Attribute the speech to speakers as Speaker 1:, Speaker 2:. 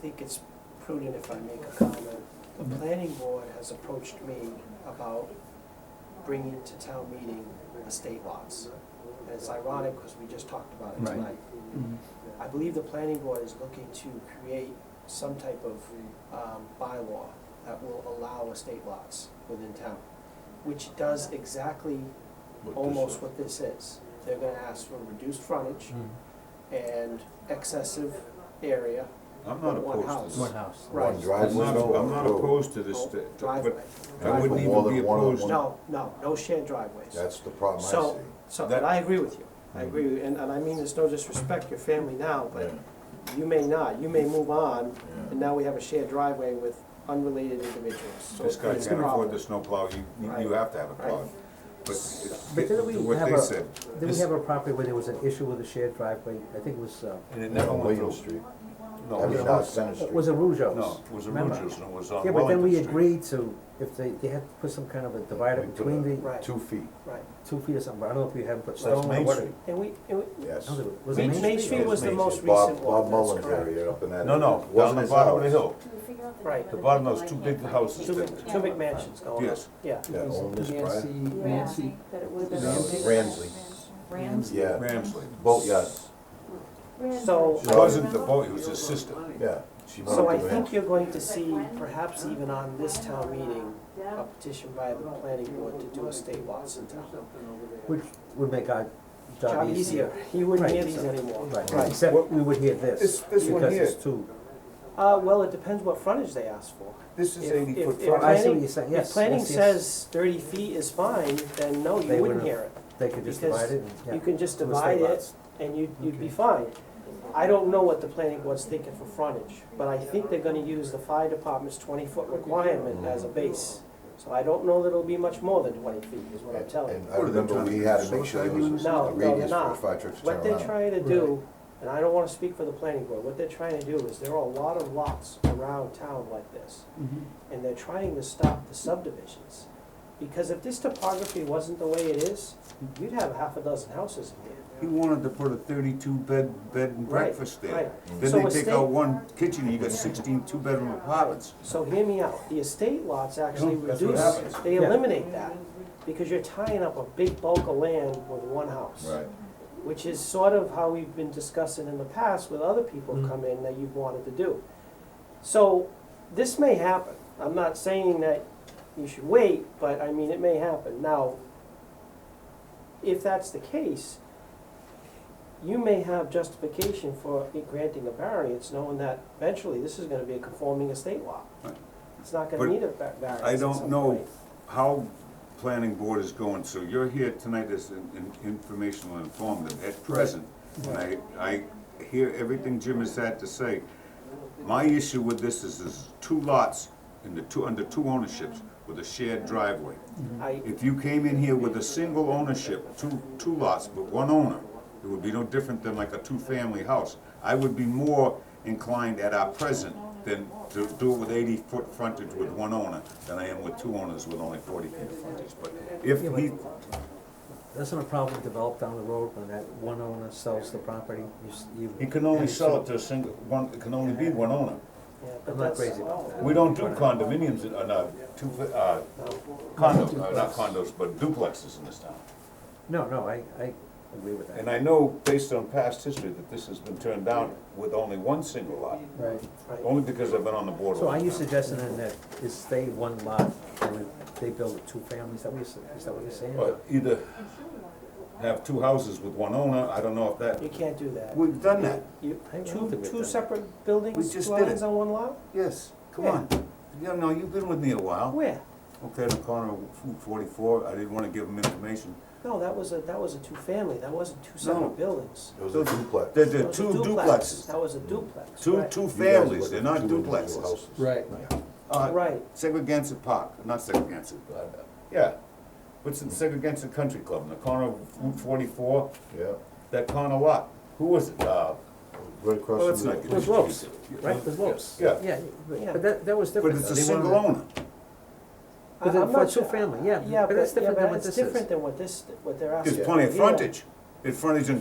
Speaker 1: think it's prudent if I make a comment. The planning board has approached me about bringing to town meeting estate lots. And it's ironic because we just talked about it
Speaker 2: Right.
Speaker 1: tonight.
Speaker 2: Mhm.
Speaker 1: I believe the planning board is looking to create some type of um, bylaw that will allow estate lots within town, which does exactly almost what this is. They're gonna ask for reduced frontage
Speaker 3: Mm.
Speaker 1: and excessive area,
Speaker 4: I'm not
Speaker 1: One
Speaker 4: opposed
Speaker 1: house.
Speaker 4: to
Speaker 2: One
Speaker 4: this.
Speaker 2: house.
Speaker 1: Right.
Speaker 3: One
Speaker 4: I'm
Speaker 3: driveway,
Speaker 4: not,
Speaker 3: no,
Speaker 4: I'm not
Speaker 3: road.
Speaker 4: opposed to this,
Speaker 1: no,
Speaker 4: th- th-
Speaker 1: driveway.
Speaker 4: but I wouldn't
Speaker 3: For more
Speaker 4: even be
Speaker 3: than one on
Speaker 4: opposed.
Speaker 3: one.
Speaker 1: No, no, no shared driveways.
Speaker 3: That's the problem
Speaker 1: So,
Speaker 3: I
Speaker 1: so,
Speaker 4: That-
Speaker 1: and I agree with you, I agree, with you. and, and I mean, there's no disrespect, your family now,
Speaker 3: see.
Speaker 1: but you may not, you may move on,
Speaker 3: Yeah.
Speaker 1: and now we have a shared driveway with unrelated individuals, so
Speaker 4: This
Speaker 1: it's a
Speaker 4: guy
Speaker 1: problem.
Speaker 4: can't afford the snowplow, you, you- you
Speaker 1: Right.
Speaker 4: have to have a plow.
Speaker 1: Right.
Speaker 4: But it's,
Speaker 2: But didn't we
Speaker 4: what
Speaker 2: have
Speaker 4: they
Speaker 2: a-
Speaker 4: said,
Speaker 2: Then we have a property where there was an issue with a shared driveway, I think it was, uh,
Speaker 4: and it
Speaker 3: Yeah,
Speaker 4: never
Speaker 3: on
Speaker 4: went
Speaker 3: William
Speaker 4: through.
Speaker 3: Street,
Speaker 4: No,
Speaker 3: that was
Speaker 4: it-
Speaker 3: not Center Street.
Speaker 2: was it Rougeau's?
Speaker 4: no, it was a
Speaker 2: Remember?
Speaker 4: Rougeau's and it was on
Speaker 2: Yeah, but then
Speaker 4: Wellington
Speaker 2: we
Speaker 4: Street.
Speaker 2: agreed to, if they, they had to put some kind of a divider
Speaker 3: We put
Speaker 2: between
Speaker 3: a-
Speaker 2: the
Speaker 1: Right,
Speaker 3: Two feet,
Speaker 1: right,
Speaker 2: two feet or something, but I don't know if we had put
Speaker 4: So that's
Speaker 2: stone or
Speaker 4: Main
Speaker 2: what.
Speaker 4: Street.
Speaker 1: and we, and we,
Speaker 3: yes.
Speaker 2: No, it was
Speaker 3: Main
Speaker 2: Main
Speaker 1: Main
Speaker 2: Street.
Speaker 1: Street was the
Speaker 4: Main
Speaker 1: most
Speaker 3: Bob-
Speaker 1: recent
Speaker 3: Bob
Speaker 1: one, that's
Speaker 3: Mullins area
Speaker 1: correct.
Speaker 3: up in that.
Speaker 4: No, no, down
Speaker 3: Wasn't
Speaker 4: the
Speaker 3: his
Speaker 4: bottom of the
Speaker 3: house.
Speaker 4: hill,
Speaker 1: Right.
Speaker 4: the bottom of those two big houses.
Speaker 1: Two,
Speaker 4: that-
Speaker 1: big- two big mansions going up,
Speaker 4: Yes.
Speaker 1: yeah,
Speaker 3: Yeah, owned this
Speaker 5: Nancy,
Speaker 3: private,
Speaker 5: Nancy,
Speaker 6: That it would have
Speaker 3: No,
Speaker 6: been.
Speaker 3: Ramsey.
Speaker 6: Ramsey.
Speaker 3: yeah,
Speaker 4: Ramsley.
Speaker 3: boat, yes,
Speaker 1: So- um,
Speaker 4: It wasn't the boat, it was his sister.
Speaker 3: yeah. She
Speaker 1: so I
Speaker 3: wanted to rent.
Speaker 1: think you're going to see, perhaps even on this town meeting, a petition by the planning board to do estate lots in town.
Speaker 2: Which would make our
Speaker 1: Job easier, he wouldn't hear these anymore.
Speaker 2: Right, except we would hear
Speaker 4: This-
Speaker 2: this,
Speaker 4: this one
Speaker 2: because it's
Speaker 4: here.
Speaker 2: two.
Speaker 1: Uh, well, it depends what frontage they ask for.
Speaker 4: This
Speaker 1: If- if- if
Speaker 2: Oh, I see
Speaker 1: planning-
Speaker 2: what you're saying, yes,
Speaker 1: If planning
Speaker 2: yes, yes.
Speaker 1: says thirty feet is fine, then no,
Speaker 2: They
Speaker 1: you wouldn't
Speaker 2: would've-
Speaker 1: hear
Speaker 2: They could just
Speaker 1: because
Speaker 2: divide it and, yeah.
Speaker 1: it. You can just
Speaker 2: Two
Speaker 1: divide
Speaker 2: estate
Speaker 1: it
Speaker 2: lots.
Speaker 1: and you'd, you'd be fine. I don't know what the planning board's thinking for frontage, but I think they're gonna use the fire department's twenty-foot requirement as a base. So I don't know that it'll be much more than twenty feet, is what I'm
Speaker 3: And-
Speaker 1: telling you.
Speaker 3: And I remember we had to make sure there was
Speaker 1: No, no,
Speaker 3: a radius
Speaker 1: they're
Speaker 3: for
Speaker 1: not.
Speaker 3: fire trucks to
Speaker 1: What
Speaker 3: turn
Speaker 1: they're
Speaker 3: around.
Speaker 1: trying to do, and I don't wanna speak for the planning board, what they're trying to do is there are a lot of lots around town like this.
Speaker 5: Mm-hmm.
Speaker 1: And they're trying to stop the subdivisions. Because if this topography wasn't the way it is, you'd have half a dozen houses in here.
Speaker 4: He wanted to put a thirty-two bed, bed and
Speaker 1: Right,
Speaker 4: breakfast
Speaker 1: right.
Speaker 4: there.
Speaker 1: So
Speaker 4: Then they take
Speaker 1: estate-
Speaker 4: out one kitchen, you got sixteen two-bedroom apartments.
Speaker 1: So hear me out, the estate lots actually
Speaker 4: Yeah, that's what
Speaker 1: reduce,
Speaker 4: happens.
Speaker 1: they
Speaker 2: Yeah.
Speaker 1: eliminate that, because you're tying up a big bulk of land with one house.
Speaker 3: Right,
Speaker 1: Which is sort of how we've been discussing in the past with other people
Speaker 2: Mm.
Speaker 1: come in that you've wanted to do. So, this may happen, I'm not saying that you should wait, but I mean, it may happen. Now, if that's the case, you may have justification for granting a variance, knowing that eventually this is gonna be a conforming estate law.
Speaker 4: Right.
Speaker 1: It's not
Speaker 4: But
Speaker 1: gonna need a va- variance
Speaker 4: I
Speaker 1: at
Speaker 4: don't
Speaker 1: some
Speaker 4: know
Speaker 1: point.
Speaker 4: how planning board is going, so you're here tonight as an an informational informative at present. And I, I hear everything Jim has had to say. My issue with this is, is two lots in the two, under two ownerships with a shared driveway.
Speaker 1: I,
Speaker 4: If you came in here with a single ownership, two, two lots, but one owner, it would be no different than like a two-family house. I would be more inclined at our present than to do it with eighty-foot frontage with one owner than I am with two owners with only forty feet of frontage. But if
Speaker 2: Yeah,
Speaker 4: he,
Speaker 2: That's not a problem developed down the road when that one owner sells the property, you s- you.
Speaker 4: he can only sell it to a single, one, it can only be one owner.
Speaker 1: yeah,
Speaker 2: I'm
Speaker 1: but
Speaker 2: not
Speaker 1: that's.
Speaker 2: crazy about that.
Speaker 4: We don't do condominiums, in- uh, no, two, uh, condos, uh, not condos, but duplexes in this town.
Speaker 2: No, no, I, I agree with that.
Speaker 4: And I know, based on past history, that this has been turned down with only one single lot,
Speaker 2: Right.
Speaker 1: Right.
Speaker 4: only because I've been on the board.
Speaker 2: So
Speaker 4: all
Speaker 2: are
Speaker 4: the
Speaker 2: you
Speaker 4: time.
Speaker 2: suggesting then that is stay one lot and then they build two families, is that what you're, s- is that what you're saying?
Speaker 4: Well, either have two houses with one owner, I don't know if
Speaker 1: You
Speaker 4: that,
Speaker 1: can't do that.
Speaker 4: we've done that,
Speaker 1: You,
Speaker 2: I don't
Speaker 1: two,
Speaker 2: think we've
Speaker 1: two
Speaker 2: done
Speaker 1: separate
Speaker 4: We
Speaker 1: buildings,
Speaker 4: just did
Speaker 1: dwellings
Speaker 4: it.
Speaker 1: on one lot?
Speaker 4: yes, come on. Yeah, no, you've been with me a while,
Speaker 1: Where?
Speaker 4: okay, the corner of Route forty-four, I didn't wanna give them information.
Speaker 1: No, that was a, that was a two-family, that wasn't two
Speaker 4: No.
Speaker 1: separate buildings.
Speaker 3: it was a duplex.
Speaker 4: There,
Speaker 3: You
Speaker 4: there
Speaker 1: That
Speaker 4: are
Speaker 1: was a
Speaker 4: two
Speaker 1: duplex.
Speaker 4: duplexes,
Speaker 1: That was a duplex,
Speaker 4: two,
Speaker 1: right.
Speaker 4: two
Speaker 3: guys
Speaker 4: families,
Speaker 3: look
Speaker 4: they're
Speaker 3: at
Speaker 4: not
Speaker 3: two individual
Speaker 4: duplexes.
Speaker 3: houses.
Speaker 5: right,
Speaker 4: Uh,
Speaker 1: Right,
Speaker 4: Segregated Park, not Segregated, uh, yeah, what's in Segregated Country Club, in the corner of Route forty-four,
Speaker 3: Yeah,
Speaker 4: that corner lot, who was it, uh,
Speaker 3: right
Speaker 4: well,
Speaker 3: across
Speaker 4: let's
Speaker 3: from the.
Speaker 4: not get.
Speaker 2: It was Lopes, right,
Speaker 4: Yeah.
Speaker 2: there's Lopes.
Speaker 4: Yeah.
Speaker 2: Yeah, but
Speaker 1: Yeah.
Speaker 2: but that, that was
Speaker 4: But
Speaker 2: different.
Speaker 4: it's a
Speaker 2: though. They
Speaker 4: single
Speaker 2: wanted-
Speaker 4: owner.
Speaker 1: I-
Speaker 2: But then
Speaker 1: I'm
Speaker 2: for
Speaker 1: not
Speaker 2: two
Speaker 1: sure.
Speaker 2: family, yeah,
Speaker 1: yeah,
Speaker 2: but that's
Speaker 1: but, yeah,
Speaker 2: different than
Speaker 1: but
Speaker 2: what
Speaker 1: it's
Speaker 2: this is.
Speaker 1: different than what this, what they're asking.
Speaker 4: There's plenty of
Speaker 1: Yeah.
Speaker 4: frontage, there's frontage in